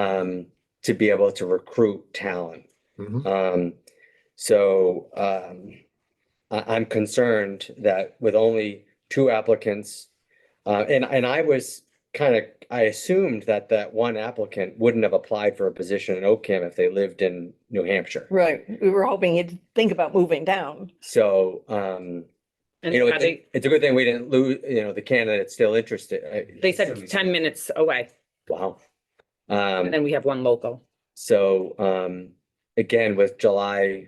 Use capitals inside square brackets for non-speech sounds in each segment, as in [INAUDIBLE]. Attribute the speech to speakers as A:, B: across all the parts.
A: um, to be able to recruit talent.
B: Mhm.
A: Um, so, um, I, I'm concerned that with only two applicants, uh, and, and I was kind of, I assumed that that one applicant wouldn't have applied for a position in Oakham if they lived in New Hampshire.
C: Right, we were hoping he'd think about moving down.
A: So, um,
D: And
A: you know,
D: uh,
A: it's,
D: they,
A: a- it's a good thing we didn't lose, you know, the candidate's still interested. I-
D: they said ten minutes away,
A: Wow. Um,
D: and then we have one local.
A: so, um, again, with July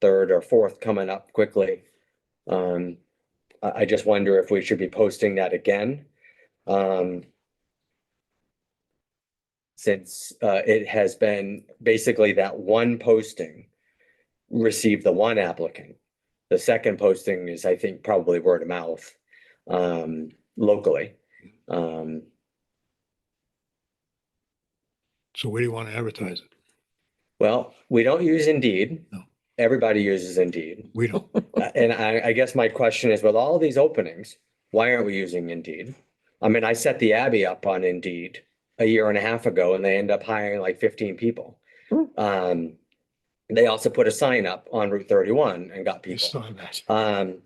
A: third or fourth coming up quickly, um, I, I just wonder if we should be posting that again. Um, since, uh, it has been basically that one posting received the one applicant. The second posting is, I think, probably word of mouth, um, locally. Um,
B: So where do you want to advertise it?
A: Well, we don't use Indeed.
B: No.
A: Everybody uses Indeed.
B: We
C: [LAUGHS]
B: don't.
A: Uh, And I, I guess my question is with all these openings, why aren't we using Indeed? I mean, I set the Abbey up on Indeed a year and a half ago and they end up hiring like fifteen people.
C: Hmm.
A: Um, they also put a sign up on Route thirty-one and got
B: You
A: people.
B: saw that.
A: Um,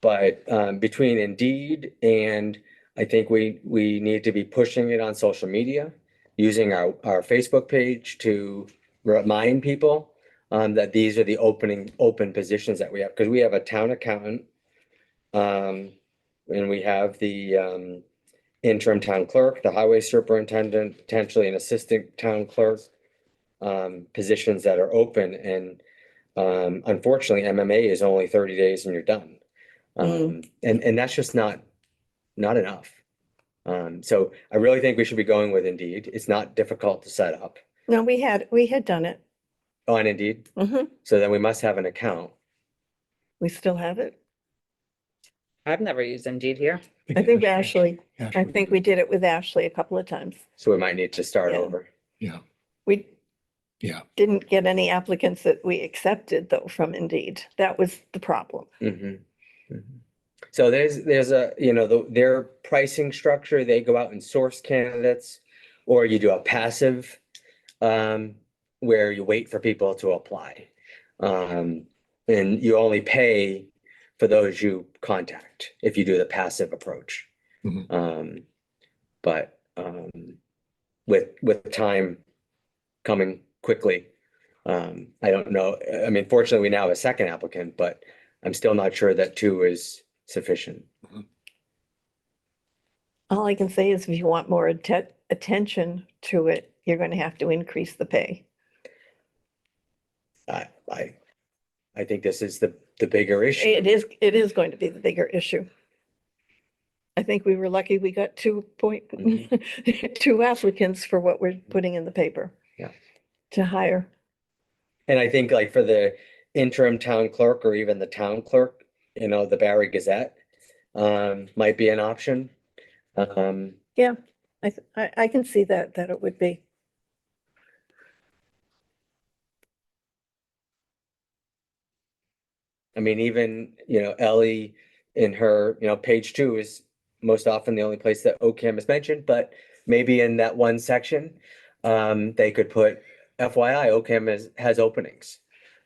A: but, um, between Indeed and I think we, we need to be pushing it on social media, using our, our Facebook page to remind people um, that these are the opening, open positions that we have, because we have a town accountant. Um, and we have the, um, interim town clerk, the highway superintendent, potentially an assistant town clerk. Um, positions that are open and um, unfortunately, MMA is only thirty days and you're done. Um,
C: Mm.
A: and, and that's just not, not enough. Um, so I really think we should be going with Indeed. It's not difficult to set up
C: No, we had, we had done it.
A: on Indeed.
C: Mhm.
A: So then we must have an account.
C: We still have it.
D: I've never used Indeed here.
C: I think Ashley, I
B: Ashley.
C: think we did it with Ashley a couple of times.
A: So we might need to start
C: Yeah.
A: over.
C: We
B: Yeah.
C: didn't get any applicants that we accepted though from Indeed. That was the problem.
A: Mhm. So there's, there's a, you know, the, their pricing structure, they go out and source candidates. Or you do a passive, um, where you wait for people to apply. Um, and you only pay for those you contact if you do the passive approach.
B: Mhm.
A: Um, but, um, with, with time coming quickly. Um, I don't know, I mean, fortunately, we now have a second applicant, but I'm still not sure that two is sufficient.
C: All I can say is if you want more atten- attention to it, you're going to have to increase the pay.
A: I, I, I think this is the, the bigger
C: It
A: issue.
C: is, it is going to be the bigger issue. I think we were lucky we got two point, [LAUGHS] two applicants for what we're putting in the paper.
A: Mm-hmm. Yeah.
C: To hire.
A: And I think like for the interim town clerk or even the town clerk, you know, the Barry Gazette, um, might be an option. Um,
C: I, th- I, I can see that, that it would be.
A: I mean, even, you know, Ellie in her, you know, page two is most often the only place that OCAM is mentioned, but maybe in that one section, um, they could put FYI, OCAM is, has openings.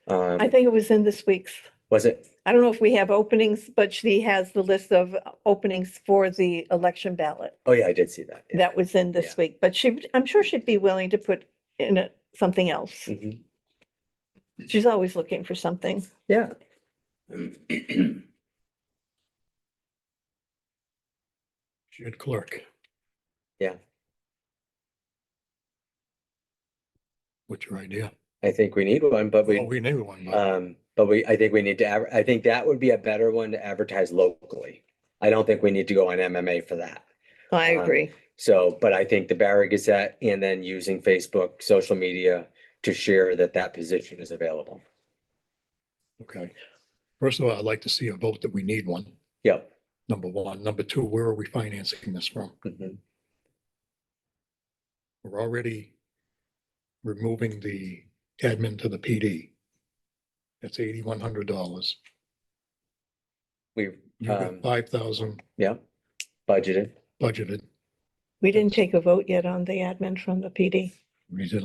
A: Um,
C: I think it was in this week's,
A: was it?
C: I don't know if we have openings, but she has the list of openings for the election ballot.
A: Oh, yeah, I did see that. yeah.
C: That was in this week, but she, I'm sure she'd be willing to put in it something else.
A: Mhm.
C: She's always looking for something.
A: Yeah.
B: She had clerk.
A: Yeah.
B: What's your idea?
A: I think we need one, but
B: Well,
A: we,
B: Oh, we need one,
C: Uh,
B: but
A: um, but we, I think we need to, adver- I think that would be a better one to advertise locally. I don't think we need to go on MMA for that.
C: I
A: Um,
C: agree.
A: So, but I think the Barry Gazette and then using Facebook, social media to share that that position is available.
B: okay. First of all, I'd like to see a vote that we need one,
A: Yep.
B: number one. Number two, where are we financing this from?
A: Mhm.
B: We're already removing the admin to the PD. That's eighty-one hundred dollars.
A: We,
B: You've got
A: Um,
B: five thousand
A: yep, budgeted.
B: budgeted.
C: We didn't take a vote yet on the admin from the PD.
B: We did